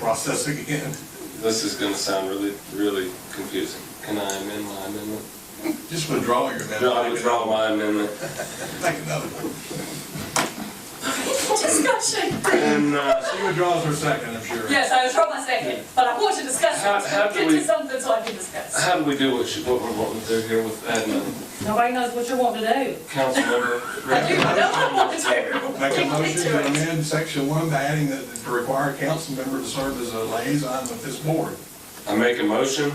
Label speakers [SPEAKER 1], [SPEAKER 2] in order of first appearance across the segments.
[SPEAKER 1] process again.
[SPEAKER 2] This is gonna sound really, really confusing. Can I amend my amendment?
[SPEAKER 3] Just withdraw your amendment.
[SPEAKER 2] No, I withdraw my amendment.
[SPEAKER 1] Make another one.
[SPEAKER 4] Discussion.
[SPEAKER 2] And, uh,
[SPEAKER 3] She withdraws her second, I'm sure.
[SPEAKER 4] Yes, I was wrong my second, but I want to discuss
[SPEAKER 2] How- how
[SPEAKER 4] it.
[SPEAKER 2] do
[SPEAKER 4] Get
[SPEAKER 2] we-
[SPEAKER 4] to something so I can discuss.
[SPEAKER 2] how do we do what she, what we're wanting to do here with admin?
[SPEAKER 4] Nobody knows what you want to do.
[SPEAKER 2] Council member?
[SPEAKER 4] I do know what I want to do.
[SPEAKER 3] Make a
[SPEAKER 4] Take me
[SPEAKER 3] motion
[SPEAKER 4] to
[SPEAKER 3] to
[SPEAKER 4] it.
[SPEAKER 3] amend section one by adding that to require a council member to serve as a liaison with this board.
[SPEAKER 2] I make a motion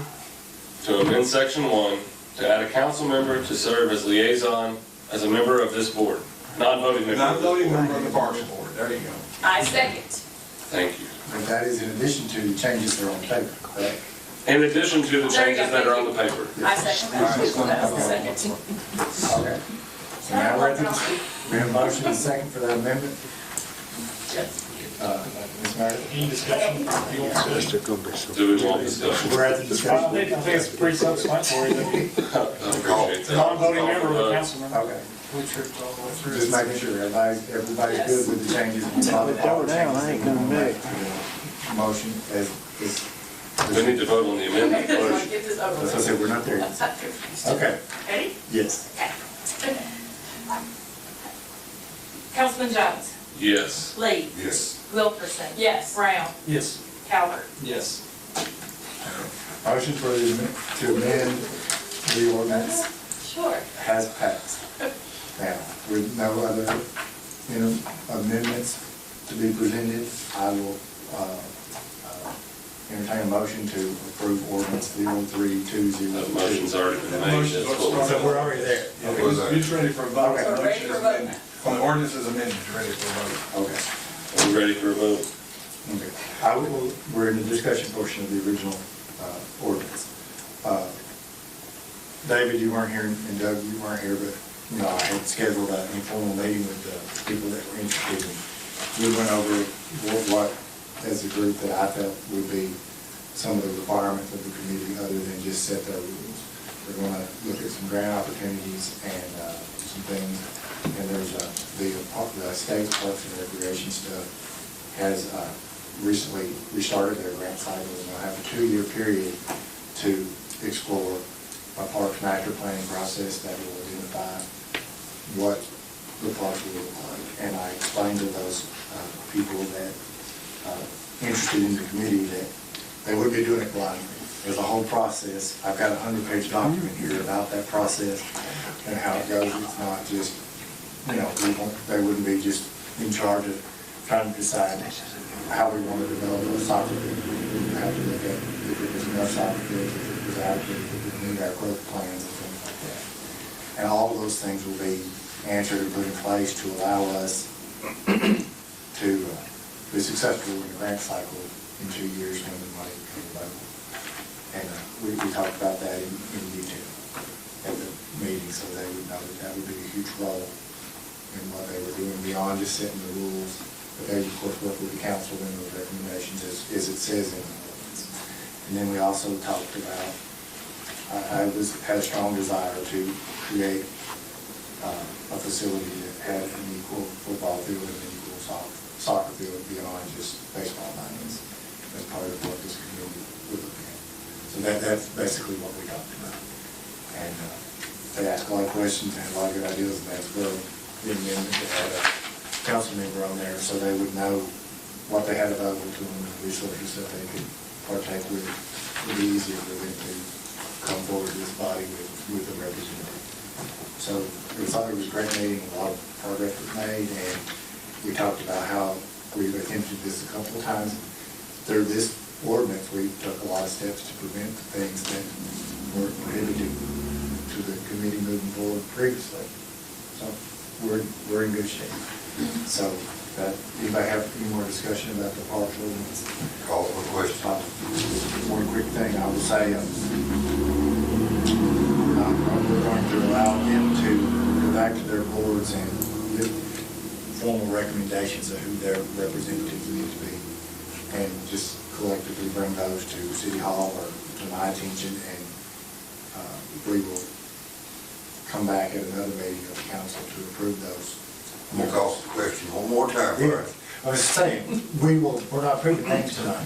[SPEAKER 2] to amend section one to add a council member to serve as liaison, as a member of this board, non-voting member.
[SPEAKER 3] Not voting member of the Parks Board, there you go.
[SPEAKER 4] I second.
[SPEAKER 2] Thank you.
[SPEAKER 5] But that is in addition to the changes that are on paper, correct?
[SPEAKER 2] In addition to the
[SPEAKER 4] There you go,
[SPEAKER 2] changes that are on the paper.
[SPEAKER 4] I second that. That was the second.
[SPEAKER 5] Okay. So now we're at the, we have a motion and a second for that amendment. Uh, Ms. Meredith?
[SPEAKER 6] Any discussion? You want to discuss?
[SPEAKER 2] Do we want discussion?
[SPEAKER 5] We're at the
[SPEAKER 6] Well, I
[SPEAKER 5] discussion.
[SPEAKER 6] think I think it's pretty self-explanatory that
[SPEAKER 2] I appreciate that.
[SPEAKER 6] non-voting member of the council member.
[SPEAKER 5] Okay,
[SPEAKER 6] Which are all the way through.
[SPEAKER 5] just making sure everybody's, everybody's good with the changes. Motion as, is,
[SPEAKER 2] We need to vote on the amendment
[SPEAKER 4] Let's
[SPEAKER 2] first.
[SPEAKER 4] Get this over
[SPEAKER 5] that's what I
[SPEAKER 4] with.
[SPEAKER 5] said, we're not there.
[SPEAKER 4] I'm not confused.
[SPEAKER 5] Okay,
[SPEAKER 4] Ready?
[SPEAKER 5] yes.
[SPEAKER 4] Councilman Jones.
[SPEAKER 2] Yes.
[SPEAKER 4] Lee.
[SPEAKER 1] Yes.
[SPEAKER 4] Wilkerson. Yes. Brown.
[SPEAKER 6] Yes.
[SPEAKER 4] Calvert.
[SPEAKER 6] Yes.
[SPEAKER 5] Motion for the, amend- to amend the ordinance
[SPEAKER 4] Sure.
[SPEAKER 5] has passed. Now, with no other you know, amendments to be presented, I will uh, uh, entertain a motion to approve ordinance zero three two zero
[SPEAKER 2] That
[SPEAKER 5] two.
[SPEAKER 2] motion's already been made. That's what we're-
[SPEAKER 5] So we're already there.
[SPEAKER 3] Okay, It's ready for a vote.
[SPEAKER 5] Okay.
[SPEAKER 4] We're ready for a vote.
[SPEAKER 3] On the ordinance is amended, it's ready for a vote.
[SPEAKER 5] Okay,
[SPEAKER 2] Are we ready for a vote?
[SPEAKER 5] okay. I will, we're in the discussion portion of the original uh, ordinance. Uh, David, you weren't here, and Doug, you weren't here, but, you know, I had scheduled an informal meeting with the people that were interested. We went over what, what, as a group, that I felt would be some of the requirements of the community, other than just set their rules. We're gonna look at some grant opportunities and, uh, some things, and there's, uh, the, par- the state parks and recreation stuff has, uh, recently restarted their grant cycle, and they'll have a two-year period to explore a parks master planning process that will identify what the park will look like. And I explained to those uh, people that, uh, interested in the committee, that they would be doing it blindly. There's a whole process. I've got a hundred-page document here about that process and how it goes. It's not just, you know, we won't- they wouldn't be just in charge of trying to decide how we want to develop a soccer field. We would have to look at if it was enough soccer fields, if it was adequate, if we need our growth plans and things like that. And all of those things will be answered and put in place to allow us to uh, be successful in the grant cycle in two years when the money comes available. And uh, we, we talked about that in, in detail at the meeting, so they would know that that would be a huge role in what they were doing beyond just setting the rules. But they, of course, work with the council and those recommendations as, as it says in the ordinance. And then we also talked about, I, I was, had a strong desire to create uh, a facility that had an equal football field and an equal soc- soccer field beyond just baseball diamonds. That's part of what this community would look at. So that, that's basically what we talked about. And uh, they asked a lot of questions, they had a lot of good ideas, and that's really the amendment that had a council member on there, so they would know what they had available to them, and resources that they could partake with. It'd be easier for them to come forward to this body with, with a representative. So it was, it was a great meeting, a lot of progress was made, and we talked about how we've attempted this a couple of times. Through this ordinance, we took a lot of steps to prevent the things that were prohibited to the committee moving forward previously. So we're, we're in good shape. So, uh, anybody have any more discussion about the park ordinance? Call for question. One quick thing I will say, um, uh, We're going to allow them to go back to their boards and give formal recommendations of who their representatives need to be, and just collectively bring those to City Hall or to my attention, and uh, we will come back at another meeting of the council to approve those.
[SPEAKER 7] I'm gonna call the question one more time, all right?
[SPEAKER 5] Yes. I was saying, we will, we're not approving things tonight.